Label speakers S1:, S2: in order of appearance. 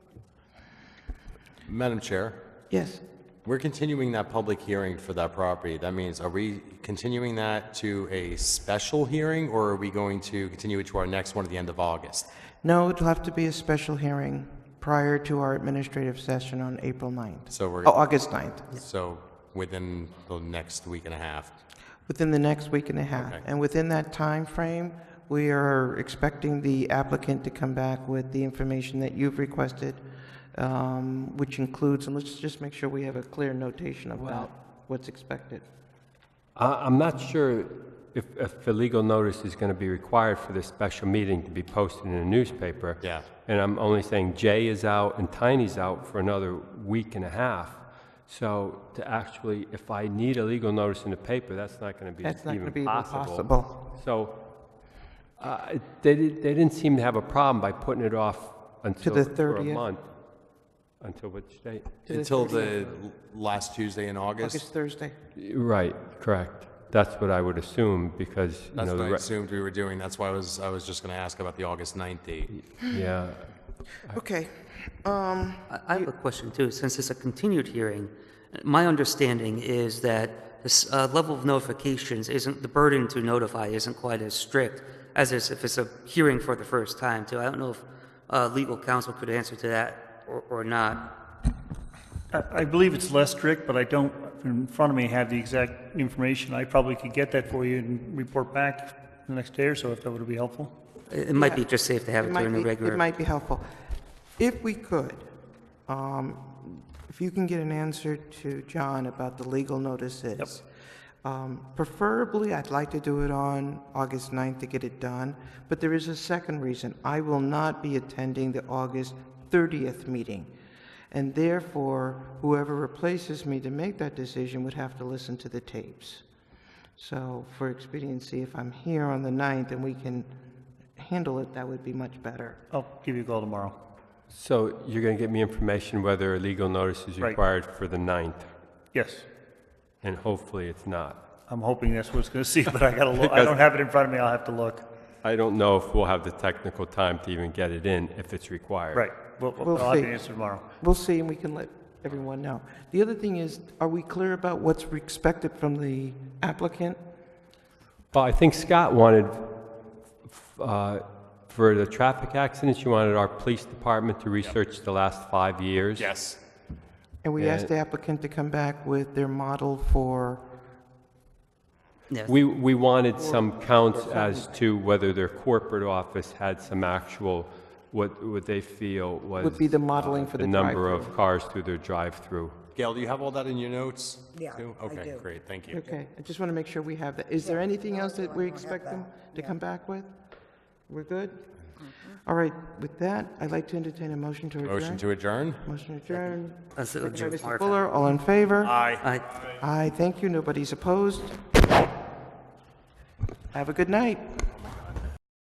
S1: Madam Chair,
S2: Yes.
S1: we're continuing that public hearing for that property. That means, are we continuing that to a special hearing, or are we going to continue it to our next one at the end of August?
S2: No, it'll have to be a special hearing prior to our administrative session on April 9th.
S1: So we're,
S2: Oh, August 9th,
S1: so within the next week and a half.
S2: within the next week and a half. And within that time frame, we are expecting the applicant to come back with the information that you've requested, um, which includes, and let's just make sure we have a clear notation about what's expected.
S3: I- I'm not sure if, if a legal notice is going to be required for this special meeting to be posted in a newspaper.
S1: Yeah.
S3: And I'm only saying Jay is out and Tiny's out for another week and a half. So to actually, if I need a legal notice in the paper, that's not going to be
S2: That's not going to be
S3: even
S2: even
S3: possible.
S2: possible.
S3: So uh, they, di- they didn't seem to have a problem by putting it off until,
S2: the
S3: for a
S2: 30th.
S3: month. Until which date?
S1: Until the last Tuesday in August?
S2: August Thursday.
S3: Right, correct. That's what I would assume because, you know.
S1: That's
S3: the
S1: what I
S3: re-
S1: assumed we were doing. That's why I was, I was just going to ask about the August 9th date.
S3: Yeah,
S2: Okay. Um,
S4: I I have a question too, since it's a continued hearing. My understanding is that this uh, level of notifications isn't, the burden to notify isn't quite as strict as is if it's a hearing for the first time too. I don't know if uh, legal counsel could answer to that or- or not.
S5: I I believe it's less strict, but I don't, in front of me, have the exact information. I probably could get that for you and report back the next day or so if that would be helpful.
S4: It it might be just safe to have it
S2: might
S4: during a
S2: be-
S4: regular.
S2: It might be helpful. If we could, um, if you can get an answer to John about the legal notices. Um, Preferably, I'd like to do it on August 9th to get it done, but there is a second reason. I will not be attending the August 30th meeting, and therefore, whoever replaces me to make that decision would have to listen to the tapes. So for expediency, if I'm here on the 9th and we can handle it, that would be much better.
S5: I'll give you a call tomorrow.
S3: So you're going to get me information whether a legal notice is
S5: Right.
S3: required for the 9th,
S5: Yes,
S3: and hopefully it's not.
S5: I'm hoping that's what it's going to see, but I gotta look, I don't have it in front of me, I'll have to look.
S3: I don't know if we'll have the technical time to even get it in if it's required.
S5: Right, Well,
S2: We'll
S5: I'll have
S2: see.
S5: the answer tomorrow.
S2: We'll see, and we can let everyone know. The other thing is, are we clear about what's expected from the applicant?
S3: Well, I think Scott wanted, f- uh, for the traffic accidents, you wanted our police department to research the last five years.
S1: Yes.
S2: And we asked the applicant to come back with their model for,
S4: Yes.
S3: We, we wanted some counts as to whether their corporate office had some actual, what, what they feel was.
S2: Would be the modeling
S3: uh,
S2: for the
S3: number
S2: drive-through.
S3: of cars through their drive-through.
S1: Gail, do you have all that in your notes?
S6: Yeah,
S1: too?
S6: I
S1: Okay,
S6: do.
S1: great, thank you.
S2: okay, I just want to make sure we have that. Is there anything else that we
S6: I have
S2: expect them
S6: that,
S2: to
S6: yeah.
S2: come back with? We're good? All right, with that, I'd like to entertain a motion to adjourn.
S1: Motion to adjourn?
S2: Motion adjourned.
S4: Uh, so-
S2: Mr. Fuller, all in favor?
S4: I-
S2: Aye, thank you, nobody's opposed. Have a good night.